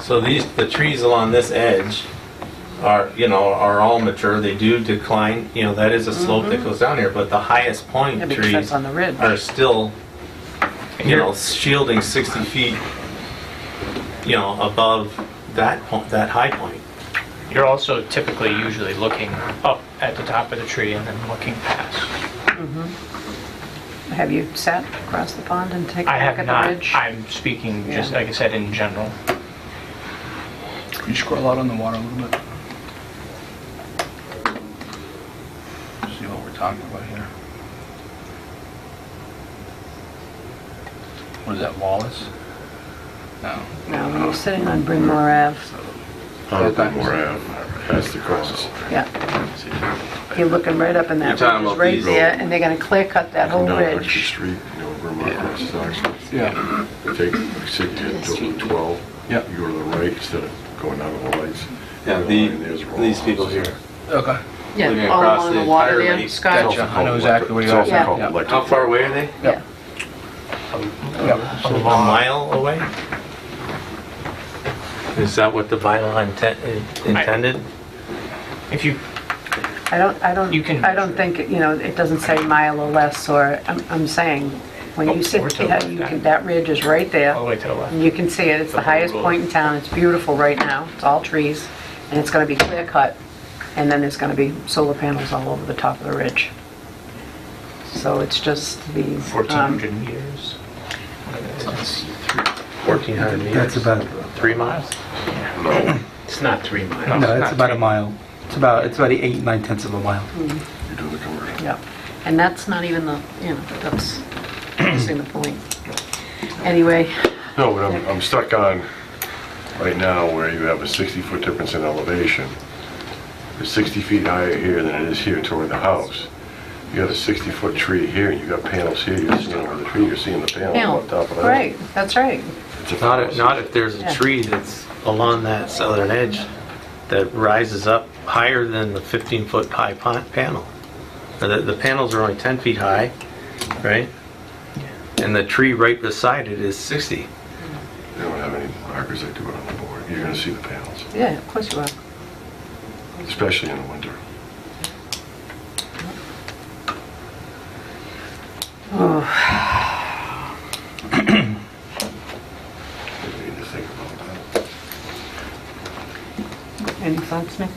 So these, the trees along this edge are, you know, are all mature, they do decline, you know, that is a slope that goes down here, but the highest point Mm-hmm. Yeah, because trees that's on the ridge. are still, you know, shielding 60 feet, you know, above that, po- that high point. You're also typically usually looking up at the top of the tree and then looking past. Have you sat across the pond and taken a I look have at the not, ridge? I'm speaking just, Yeah. like I said, in general. Can you scroll out on the water a little bit? See what we're talking about here. What is that, Wallace? No. No, when you're sitting on Bryn Mawr Ave, On Okay. Baltimore Ave, um, past the cross. yeah, you're looking right up in that You're talking ridge, about right these- there, and they're gonna clear cut that whole Come down Oxford ridge. Street, you know, Vermont Yeah. crosses Oxford. Yeah, Take, say, you hit Dublin 12. Yeah. You go to the right instead of going out of the lights. Yeah, Go the, along, there's Rollins. these people here. okay. Yeah, Looking all across along the the water entire there, lake. It's Gotcha. Scott. also I know called exactly where electric- you are. It's Yeah. also called Yeah. electric. How far away are they? Yeah, Yeah. A mile away? Is that what the bylaw intent- intended? If you, I don't, I don't, You can I don't think, you know, it doesn't say mile or less, or, I'm, I'm saying, when Oh, you sit, we're talking yeah, about you that. can, that ridge is right there. all the way to the left. And you can see it, it's the highest point in town, it's beautiful right now, it's all trees, and it's gonna be clear cut, and then there's gonna be solar panels all over the top of the ridge. So it's just these, um, 1,400 meters. Fourteen hundred meters? That's about, Three miles? No, It's not three miles. no, it's about a mile. It's about, it's about eight, nine tenths of a mile. you do the commercial. yeah, and that's not even the, you know, that's missing the point. Anyway, No, but I'm, I'm stuck on, right now, where you have a 60-foot difference in elevation. It's 60 feet higher here than it is here toward the house. You got a 60-foot tree here, and you got panels here, you're seeing where the tree, you're seeing the panel now, on top of that. right, that's right, It's a Not if, fallacy. not if there's a tree that's along that southern edge that rises up higher than the 15-foot high pon- panel. Now, The, the panels are only 10 feet high, right? And the tree right beside it is 60. They don't have any markers that do it on the board. You're gonna see the panels, yeah, of course you are. especially in the winter. You need to think about that. Any thoughts, Nick?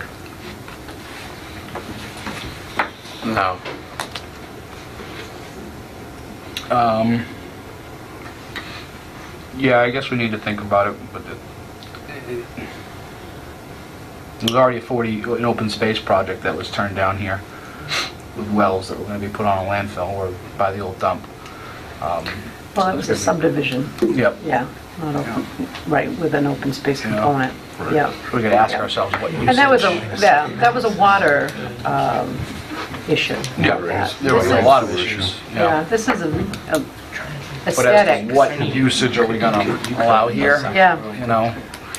No. Um, yeah, I guess we need to think about it, but the, there's already a 40, an open space project that was turned down here with wells that were gonna be put on a landfill or by the old dump. Um, Well, it was a subdivision, Yep. yeah, not open, right, with an open space Yeah. component, Right. yeah. We could ask Yeah. ourselves what usage. And that was a, yeah, that was a water um, issue. Yeah, there This were a is- lot of issues. Yeah, this is a a But as to aesthetic. what usage are we gonna allow here? Yeah. You know,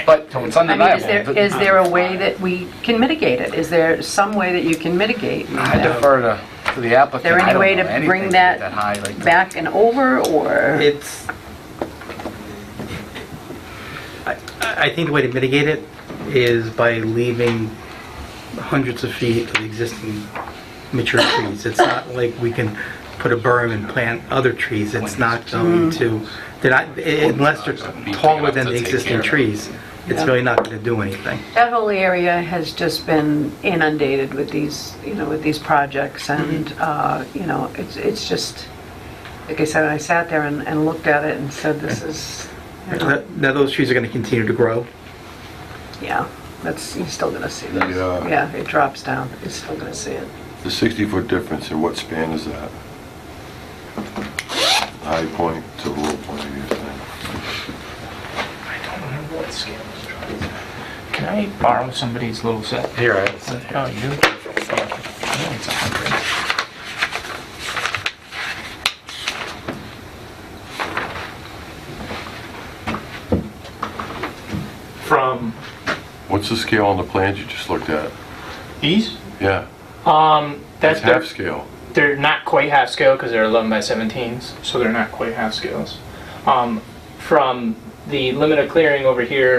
but it's I mean, is there, undeniable. is there a way that we can mitigate it? Is there some way that you can mitigate I that? defer to, to the applicant. there any I don't way know to anything bring that high, like that. back and over, or? It's, I, I think the way to mitigate it Is by leaving hundreds of feet of existing mature trees. It's not like we can put a berm and plant other trees. It's not going to, they're not, unless they're taller than the existing trees, it's really not going to do anything. That whole area has just been inundated with these, you know, with these projects, Mm-hmm. and, uh, you know, it's, it's just, like I said, I sat there and, and looked at it and said, this is, you know, Now, now those trees are going to continue to grow. yeah, that's, you're still gonna see this. Yeah. Yeah, it drops down, you're still gonna see it. The 60-foot difference, in what span is that? High point to the low point of your thing. I don't remember what scale this drawing is. Can I borrow somebody's little set? here, I have some- Oh, you do? I know it's 100. from What's the scale on the plans you just looked at? These? Yeah, Um, that's that's, half scale. they're not quite half scale because they're 11 by 17s, so they're not quite half scales. Um, from the limit of clearing over here